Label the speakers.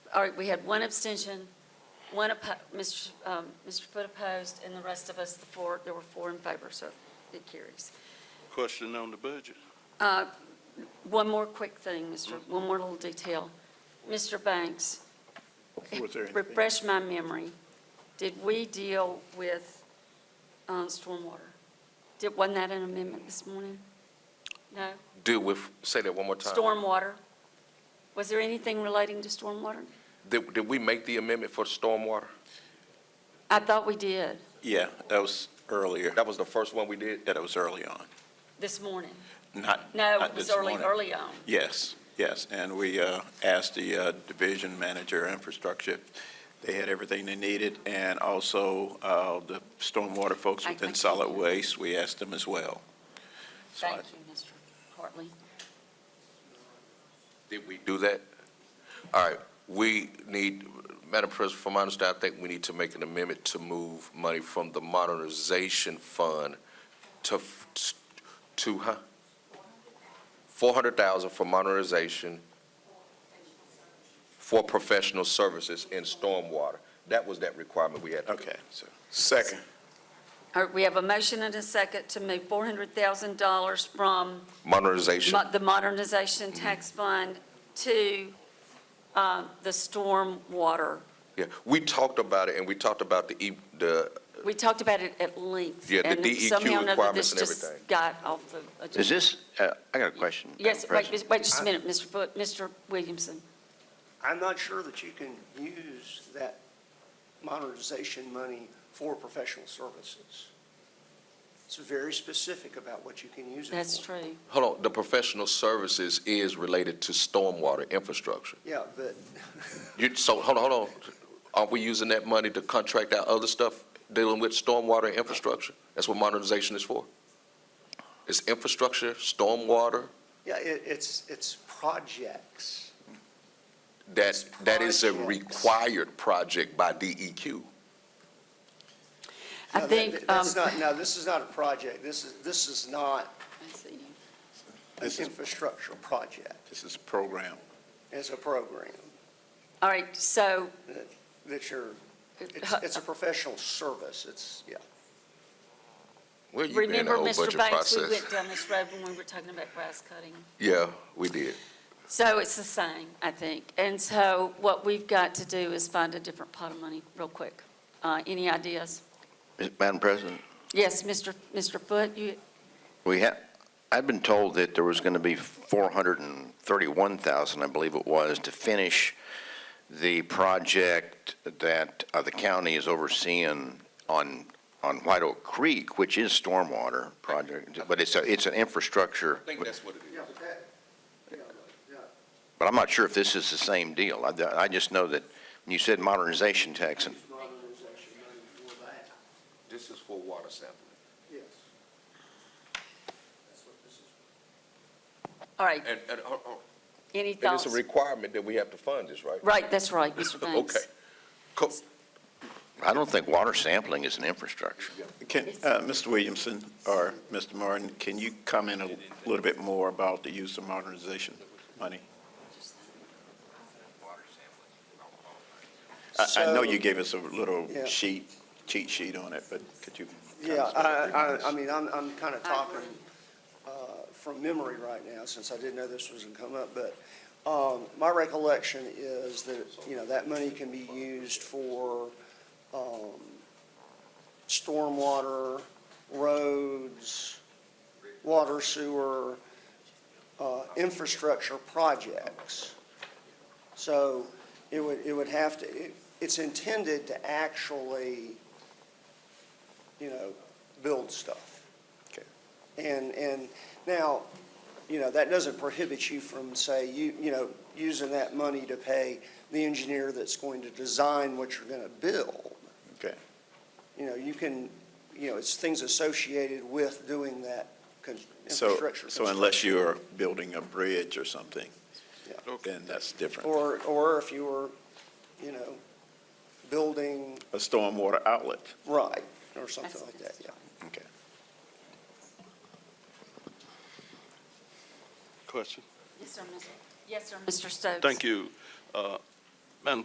Speaker 1: all right, we had one abstention, one, oppo- Mr. Sh- um, Mr. Foot opposed, and the rest of us, the four, there were four in favor, so it carries.
Speaker 2: Question on the budget.
Speaker 1: Uh, One more quick thing, Mr.,
Speaker 3: Mm-hmm.
Speaker 1: one more little detail. Mr. Banks,
Speaker 3: Was there anything?
Speaker 1: refresh my memory, did we deal with uh, stormwater? Did, wasn't that an amendment this morning? No?
Speaker 4: Do with, say that one more time.
Speaker 1: Stormwater? Was there anything relating to stormwater?
Speaker 4: Did, did we make the amendment for stormwater?
Speaker 1: I thought we did,
Speaker 3: Yeah, that was earlier.
Speaker 4: That was the first one we did?
Speaker 3: Yeah, that was early on,
Speaker 1: this morning.
Speaker 3: not,
Speaker 1: No,
Speaker 3: not
Speaker 1: it was
Speaker 3: this
Speaker 1: early,
Speaker 3: morning.
Speaker 1: early on.
Speaker 3: Yes, yes, and we uh, asked the uh, division manager, infrastructure, if they had everything they needed, and also uh, the stormwater folks
Speaker 1: I- I
Speaker 3: within
Speaker 1: can't
Speaker 3: solid
Speaker 1: hear.
Speaker 3: waste, we asked them as well. So I-
Speaker 1: Thank you, Mr. Hartley.
Speaker 4: Did we do that? All right, we need, Madam President, from my understanding, I think we need to make an amendment to move money from the modernization fund to, f- to, huh? Four hundred thousand for modernization for professional services in stormwater. That was that requirement we had.
Speaker 3: Okay, so,
Speaker 4: Second.
Speaker 1: All right, we have a motion and a second to move $400,000 from
Speaker 4: Modernization.
Speaker 1: mo- the Modernization Tax Fund to uh, the stormwater.
Speaker 4: Yeah, we talked about it, and we talked about the, E- the,
Speaker 1: We talked about it at length.
Speaker 4: Yeah, the
Speaker 1: and
Speaker 4: DEQ
Speaker 1: somehow or another
Speaker 4: requirements and
Speaker 1: this just
Speaker 4: everything.
Speaker 1: Got off the agenda.
Speaker 5: Is this, uh, I got a question. Madam
Speaker 1: Yes, wait,
Speaker 5: President.
Speaker 1: just- wait just a minute, Mr. Foot, Mr. Williamson.
Speaker 6: I'm not sure that you can use that modernization money for professional services. It's very specific about what you can use it for.
Speaker 1: That's true.
Speaker 4: hold on, the professional services is related to stormwater infrastructure.
Speaker 6: Yeah, but
Speaker 4: You, so, hold on, hold on, aren't we using that money to contract out other stuff dealing with stormwater infrastructure? That's what modernization is for. It's infrastructure, stormwater,
Speaker 6: yeah, it, it's, it's projects.
Speaker 4: that, that is a
Speaker 6: Projects.
Speaker 4: required project by E DEQ.
Speaker 1: I
Speaker 6: Now, that-
Speaker 1: think,
Speaker 6: that- That's
Speaker 1: um,
Speaker 6: not, no, this is not a project. This is, this is not
Speaker 1: I see you.
Speaker 6: an
Speaker 3: This is-
Speaker 6: infrastructure project.
Speaker 3: this is program.
Speaker 6: It's a program
Speaker 1: All right, so,
Speaker 6: that you're, it's, it's a professional service. It's, yeah.
Speaker 4: Where you been in the
Speaker 1: remember,
Speaker 4: whole
Speaker 1: Mr.
Speaker 4: budget
Speaker 1: Banks, we
Speaker 4: process?
Speaker 1: went down this road when we were talking about grass cutting.
Speaker 4: Yeah, we did.
Speaker 1: So it's the same, I think. And so what we've got to do is find a different pot of money real quick. Uh, Any ideas?
Speaker 5: Is- Madam President,
Speaker 1: Yes, Mr. Mr. Foot, you,
Speaker 5: we have, I've been told that there was going to be 431,000, I believe it was, to finish the project that uh, the county is overseeing on, on White Oak Creek, which is stormwater project, but it's, a it's an infrastructure,
Speaker 4: that's what it
Speaker 6: Yeah, but that, yeah,
Speaker 5: but I'm not sure if this is the same deal. I, I just know that when you said modernization tax, and
Speaker 6: modernization money for that.
Speaker 4: This is for water sampling.
Speaker 6: Yes. That's what this is.
Speaker 1: all right,
Speaker 4: And, and, hold on.
Speaker 1: any
Speaker 4: And it's
Speaker 1: thoughts?
Speaker 4: a requirement that we have to fund this, right?
Speaker 1: Right, that's right, Mr. Banks.
Speaker 4: Okay. Cool.
Speaker 5: I don't think water sampling is an infrastructure.
Speaker 3: Can, uh, Mr. Williamson or Mr. Martin, can you comment a little bit more about the use of modernization money? I, I know you gave us a little
Speaker 6: Yeah.
Speaker 3: sheet, cheat sheet on it, but could you? kind of
Speaker 6: Yeah,
Speaker 3: sort of
Speaker 6: I,
Speaker 3: remind
Speaker 6: I, I
Speaker 3: us?
Speaker 6: mean, I'm, I'm kind of
Speaker 1: I
Speaker 6: talking
Speaker 1: agree.
Speaker 6: uh, from memory right now, since I didn't know this was going to come up, but um, my recollection is that, you know, that money can be used for um, stormwater, roads, water sewer, uh, infrastructure projects. So it would, it would have to, it- it's intended to actually, you know, build stuff.
Speaker 3: Okay.
Speaker 6: And, and now, you know, that doesn't prohibit you from, say, you, you know, using that money to pay the engineer that's going to design what you're going to build.
Speaker 3: Okay.
Speaker 6: You know, you can, you know, it's things associated with doing that con-
Speaker 3: So,
Speaker 6: infrastructure.
Speaker 3: so unless you're building a bridge or something,
Speaker 6: Yeah.
Speaker 3: then that's
Speaker 6: construction.
Speaker 3: different.
Speaker 6: Or, or if you were, you know, building,
Speaker 3: A stormwater outlet.
Speaker 6: right, or something like that, yeah.
Speaker 3: Okay.
Speaker 2: Question.
Speaker 1: Yes, sir, Mr. Yes, sir, Mr. Stokes.
Speaker 2: Thank you. Uh,